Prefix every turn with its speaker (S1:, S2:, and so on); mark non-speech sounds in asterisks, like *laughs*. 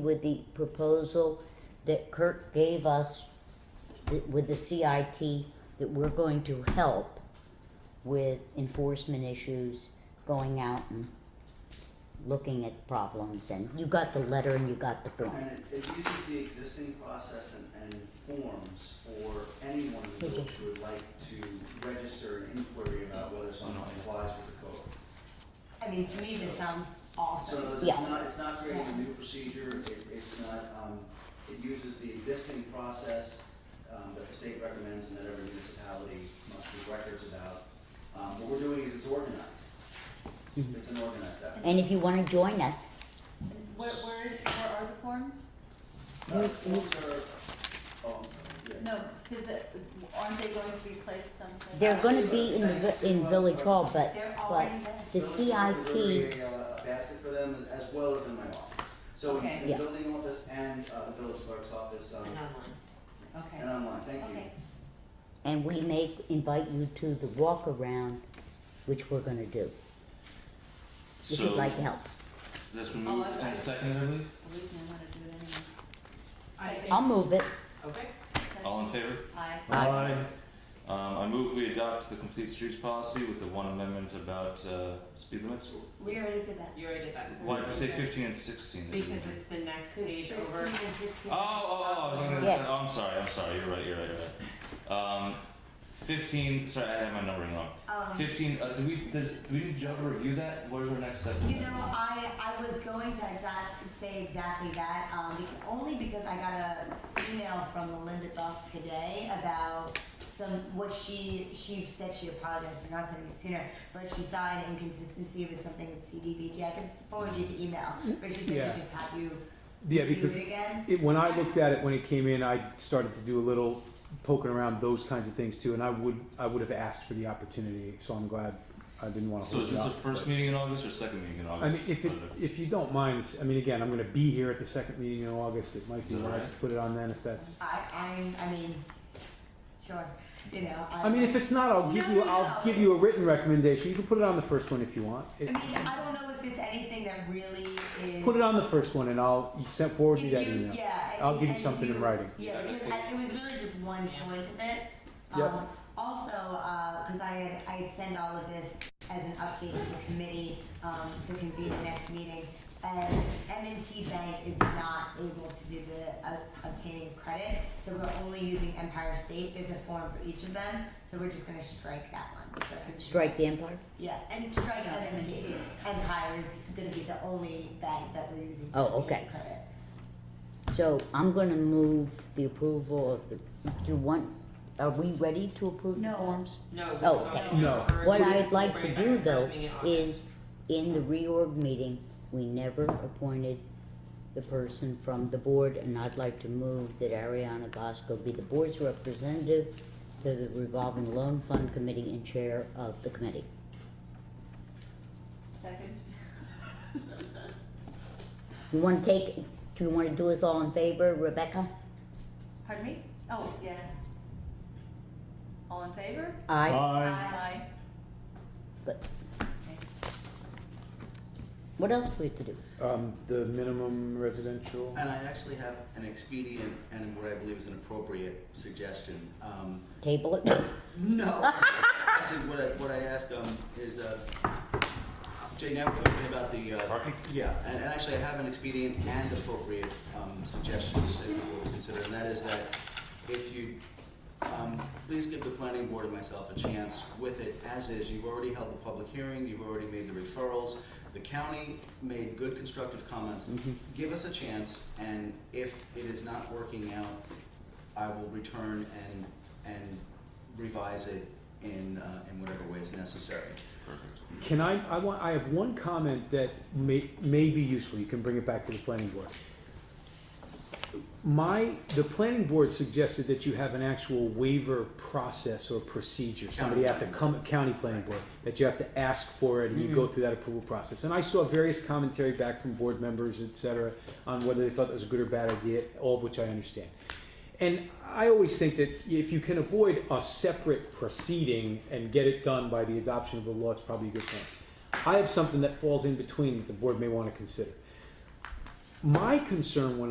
S1: with the proposal that Kirk gave us th- with the CIT, that we're going to help with enforcement issues, going out and looking at problems, and you got the letter and you got the form.
S2: And it, it uses the existing process and, and forms for anyone in the village who would like to register an inquiry about whether someone complies with the code.
S3: I mean, to me, this sounds
S2: So in
S3: awesome.
S2: other words, it's
S1: Yeah.
S2: not, it's not creating a new procedure, it, it's not, um, it uses the existing process, um, that the state recommends and that every municipality must keep records about. Um, what we're doing is it's organized.
S1: Mhm.
S2: It's an organized effort.
S1: And if you wanna join us,
S3: Where, where is, where are the forms?
S2: Uh, forms are- oh, yeah.
S3: No, is it, aren't they going to be placed someplace?
S1: they're gonna be in the, vi- in Village Hall, but,
S3: They're
S1: but
S3: already there.
S1: the
S2: Building office is already
S1: CIT,
S2: creating a- a basket for them as well as in my office. So in-
S3: Okay.
S2: in the
S1: Yeah.
S2: building office and uh, the village clerk's office, um,
S4: And online.
S2: and
S3: Okay,
S2: online, thank you.
S3: okay.
S1: and we may invite you to the walk around, which we're gonna do, if you'd
S5: So
S1: like help.
S5: that's been moved
S3: Oh, I-
S5: and seconded, I believe.
S3: I'm losing my mind to do it anyway.
S4: I
S3: Second,
S1: I'll move it.
S4: Okay.
S3: second.
S5: All in favor?
S3: Aye.
S1: Aye.
S5: Um, I move we adopt the complete streets policy with the one amendment about uh, speed limits.
S3: We already did that.
S4: You already did that.
S5: Why did you say 15 and 16?
S4: Because it's the next
S3: Because
S4: page
S3: 15
S4: over.
S3: and 16
S5: Oh, oh, oh, I was looking at
S1: Yeah.
S5: this. Oh, I'm sorry, I'm sorry. You're right, you're right, you're right. Um, 15, sorry, I had my numbering wrong.
S3: Um,
S5: 15, uh, do we, does, do we need to jump or review that? What is our next step?
S3: You know, I, I was going to exact, say exactly that, um, bec- only because I got a email from Melinda Buff today about some, what she, she said she apologized for not sending it sooner, but she saw an inconsistency with something with CDBG, I can forward you the email, but she said
S6: Yeah.
S3: she just have you
S6: Yeah,
S3: do
S6: because
S3: it again.
S6: it, when I looked at it when it came in, I started to do a little poking around those kinds of things too, and I would I would have asked for the opportunity, so I'm glad I didn't want to.
S5: So is this the first meeting in August or second meeting in
S6: I
S5: August?
S6: mean, if it, if you don't mind, I mean, again, I'm going to be here at the second meeting in August. It might be
S5: Is that
S6: wise
S5: right?
S6: to put it on then if that's.
S3: I, I, I mean, sure, you know, I.
S6: I mean, if it's not, I'll give you
S3: No, no,
S6: I'll
S3: no.
S6: give you a written recommendation. You can put it on the first one if you want.
S3: I
S6: It,
S3: mean, I don't know if it's anything that really is.
S6: put it on the first one, and I'll you sent forward
S3: If
S6: me that
S3: you-
S6: email.
S3: yeah, and-
S6: I'll give you
S3: and
S6: something in writing.
S3: Yeah,
S5: Yeah,
S3: because
S5: I
S3: I- it was really just one
S4: Yeah.
S3: point of it.
S6: Yep.
S3: Um, Also, because I had, I had sent all of this as an update to the committee um, to convene the next meeting. And m and t Bank is not able to do the uh, obtaining of credit, so we're only using Empire State. There's a form for each of them, so we're just gonna strike that one.
S1: Strike the Empire?
S3: Yeah, and strike
S4: Yeah,
S3: M&T. Empire is gonna be the only bank that we're using to
S1: Oh,
S3: obtain
S1: okay.
S3: credit.
S1: So I'm gonna move the approval of the, do you want, are we ready to approve the
S3: No.
S1: forms?
S4: No.
S1: Oh,
S4: it's
S1: okay.
S4: not.
S6: No.
S4: We're
S1: What
S4: reviewing-
S1: I'd like
S4: we'll
S1: to
S4: bring it
S1: do
S4: back first
S1: though
S4: meeting in
S1: is,
S4: August.
S1: in the reorg meeting, we never appointed the person from the board, and I'd like to move that Ariana Bosco be the board's representative to the revolving loan fund committee and chair of the committee.
S3: Second.
S1: You wanna take, do you wanna do us all in favor, Rebecca?
S3: Pardon me? Oh, yes. All in favor?
S1: Aye.
S3: Aye.
S1: Good. What else do we have to do?
S6: Um, the minimum residential.
S2: And I actually have an expedient and what I believe is an appropriate suggestion. Um,
S1: Table it?
S2: No. *laughs* Actually, what I, what I ask, um, is, uh, Jay, now we're talking about the, uh.
S5: Parking?
S2: Yeah, and, and actually I have an expedient and appropriate, um, suggestions that we will consider, and that is that if you, um, please give the planning board and myself a chance with it as is. You've already held the public hearing, you've already made the referrals. The county made good constructive comments. Give us a chance, and if it is not working out, I will return and, and revise it in, uh, in whatever way is necessary.
S5: Perfect.
S6: Can I, I want, I have one comment that may, may be useful, you can bring it back to the planning board. My, the planning board suggested that you have an actual waiver process or procedure, somebody have to come, county planning board, Mm-hmm. that you have to ask for it and you go through that approval process. And I saw various commentary back from board members, et cetera, on whether they thought that was a good or bad idea, all of which I understand. And I always think that if you can avoid a separate proceeding and get it done by the adoption of the law, it's probably a good thing. I have something that falls in between that the board may want to consider. My concern when